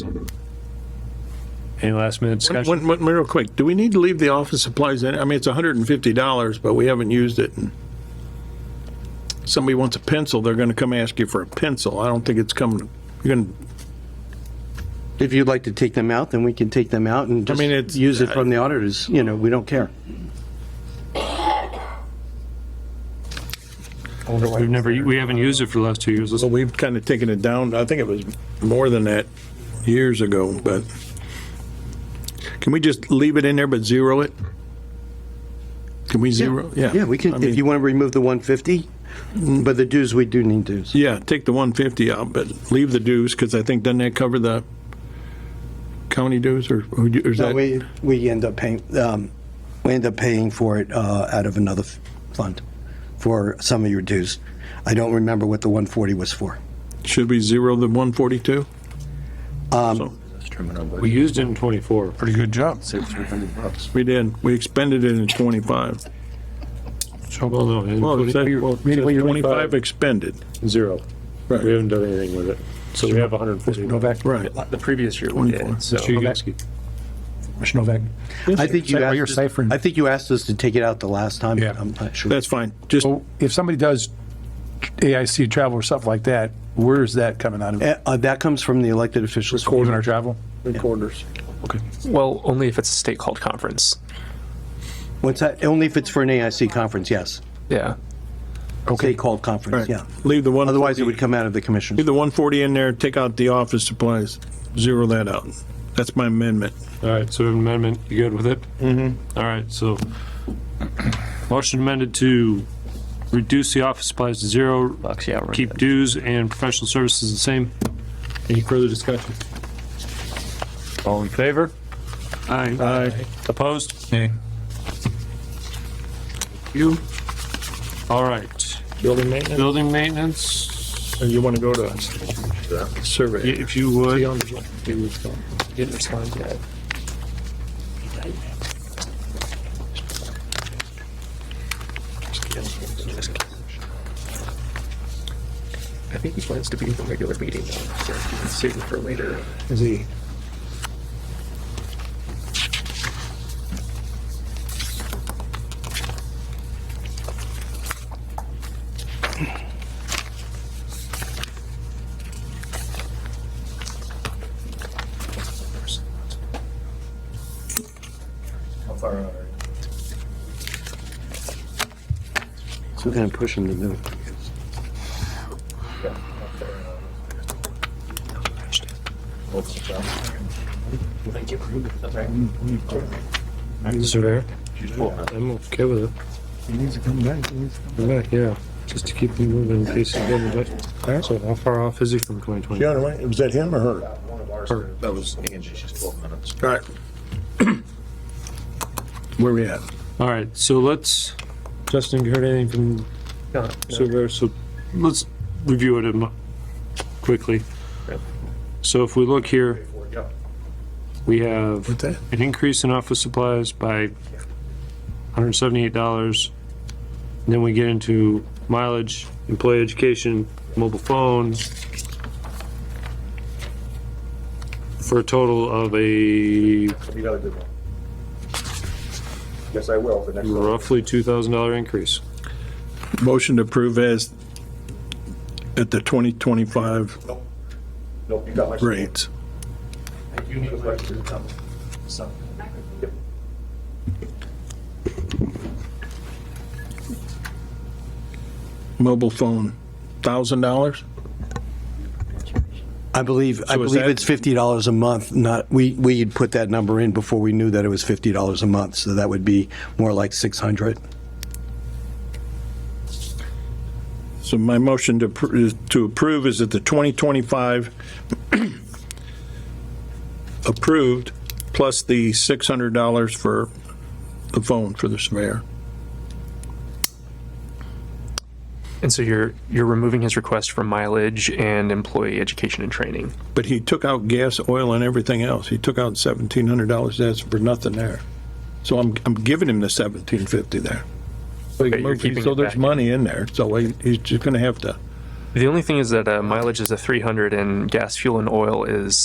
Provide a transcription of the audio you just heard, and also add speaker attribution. Speaker 1: Any last minute discussion?
Speaker 2: One, one, real quick, do we need to leave the office supplies in? I mean, it's hundred and fifty dollars, but we haven't used it. and Somebody wants a pencil, they're gonna come ask you for a pencil. I don't think it's coming, you're gonna,
Speaker 3: If you'd like to take them out, then we can take them out and just
Speaker 2: mean, it's- uh,
Speaker 3: use it from the auditors, you know, we don't care.
Speaker 1: We've never, we haven't used it for the last two years. Let's-
Speaker 2: so we've kind of taken it down. I think it was more than that years ago, but can we just leave it in there but zero it? Can we zero? Yeah.
Speaker 3: Yeah, we
Speaker 2: I
Speaker 3: can,
Speaker 2: mean,
Speaker 3: if you want to remove the 150, but the dues, we do need dues.
Speaker 2: Yeah, take the one fifty out, but leave the dues, because I think, doesn't that cover the county dues or, or is
Speaker 3: No,
Speaker 2: that?
Speaker 3: we, we end up paying, um, we end up paying for it, uh, out of another f- fund for some of your dues. I don't remember what the 140 was for.
Speaker 2: Should we zero the 142?
Speaker 3: Um,
Speaker 1: We used it in 24.
Speaker 4: Pretty good job.
Speaker 2: We did. We expended it in 25.
Speaker 1: Well, no, in
Speaker 2: Well,
Speaker 1: 20
Speaker 2: it said-
Speaker 1: we-
Speaker 2: well,
Speaker 1: we
Speaker 2: it said
Speaker 1: did
Speaker 2: 25 expended.
Speaker 1: Zero.
Speaker 2: Right.
Speaker 1: We haven't done anything with it. So we have 140.
Speaker 4: Novak,
Speaker 2: Right.
Speaker 5: The previous year we did,
Speaker 2: 24.
Speaker 5: so.
Speaker 1: Mr. Yagowski.
Speaker 4: Mr. Novak.
Speaker 3: I think you
Speaker 4: Is that what
Speaker 3: asked
Speaker 4: you're
Speaker 3: us-
Speaker 4: ciphering?
Speaker 3: I think you asked us to take it out the last time.
Speaker 4: Yeah.
Speaker 3: I'm not sure.
Speaker 2: That's fine. Just,
Speaker 3: Oh,
Speaker 4: So if somebody does AIC travel or stuff like that, where's that coming out of?
Speaker 3: Uh, uh, that comes from the elected officials.
Speaker 4: Recording our travel?
Speaker 5: Well, only if it's a state called conference.
Speaker 3: What's that? Only if it's for an AIC conference, yes.
Speaker 5: Yeah.
Speaker 3: State called conference, yeah.
Speaker 2: leave the one.
Speaker 3: Otherwise, it would come out of the
Speaker 2: Leave
Speaker 3: commissioners.
Speaker 2: the 140 in there, take out the office supplies, zero that out. That's my amendment.
Speaker 1: All right, so amendment, you good with it? Mm-hmm. All right, so motion amended to reduce the office supplies to zero,
Speaker 5: Bucks, yeah. we're
Speaker 1: keep
Speaker 5: good.
Speaker 1: dues and professional services the same. Any further discussion? All in favor? Aye. Aye. Opposed?
Speaker 4: Nay.
Speaker 1: You? All right.
Speaker 2: Building maintenance?
Speaker 1: Building maintenance,
Speaker 2: And you want to go to
Speaker 1: y-
Speaker 2: survey?
Speaker 1: if you would.
Speaker 5: Didn't respond yet. I think he plans to be at the regular meeting, though, so we can save it for later.
Speaker 4: Is he?
Speaker 3: So we're going to push them to do it.
Speaker 1: Surveyor? I'm okay with it. He needs to come back, he needs to come back. yeah, just to keep him moving in case he doesn't, but, so how far off is he from twenty twenty?
Speaker 2: Was that him or her?
Speaker 6: That was Angie, she's 12 minutes.
Speaker 2: All right. Where we at?
Speaker 1: All right, so let's, Justin, you heard anything from
Speaker 5: No, no.
Speaker 1: surveyor, so let's review it a mo- quickly. So if we look here, we have
Speaker 2: What's that?
Speaker 1: an increase in office supplies by $178. And Then we get into mileage, employee education, mobile phones, for a total of a
Speaker 6: You got a good one. Yes, I will for next one.
Speaker 1: roughly $2,000 increase.
Speaker 2: Motion to approve as at the 2025
Speaker 6: Nope, you got my.
Speaker 2: rates.
Speaker 6: You need a question. Something.
Speaker 2: Mobile phone, $1,000?
Speaker 3: I believe, I
Speaker 2: So is
Speaker 3: believe
Speaker 2: that-
Speaker 3: it's $50 a month, not, we, we'd put that number in before we knew that it was $50 a month, so that would be more like 600.
Speaker 2: So my motion to, appro- is- to approve is that the 2025 approved, plus the $600 for the phone for the surveyor.
Speaker 5: And so you're, you're removing his request for mileage and employee education and training.
Speaker 2: But he took out gas, oil, and everything else. He took out $1,700, that's for nothing there. So I'm, I'm giving him the 1750 there.
Speaker 5: Okay, you're keeping
Speaker 2: So
Speaker 5: it
Speaker 2: there's
Speaker 5: back.
Speaker 2: money in there, so he- he's just gonna have to.
Speaker 5: The only thing is that uh, mileage is a 300 and gas, fuel, and oil is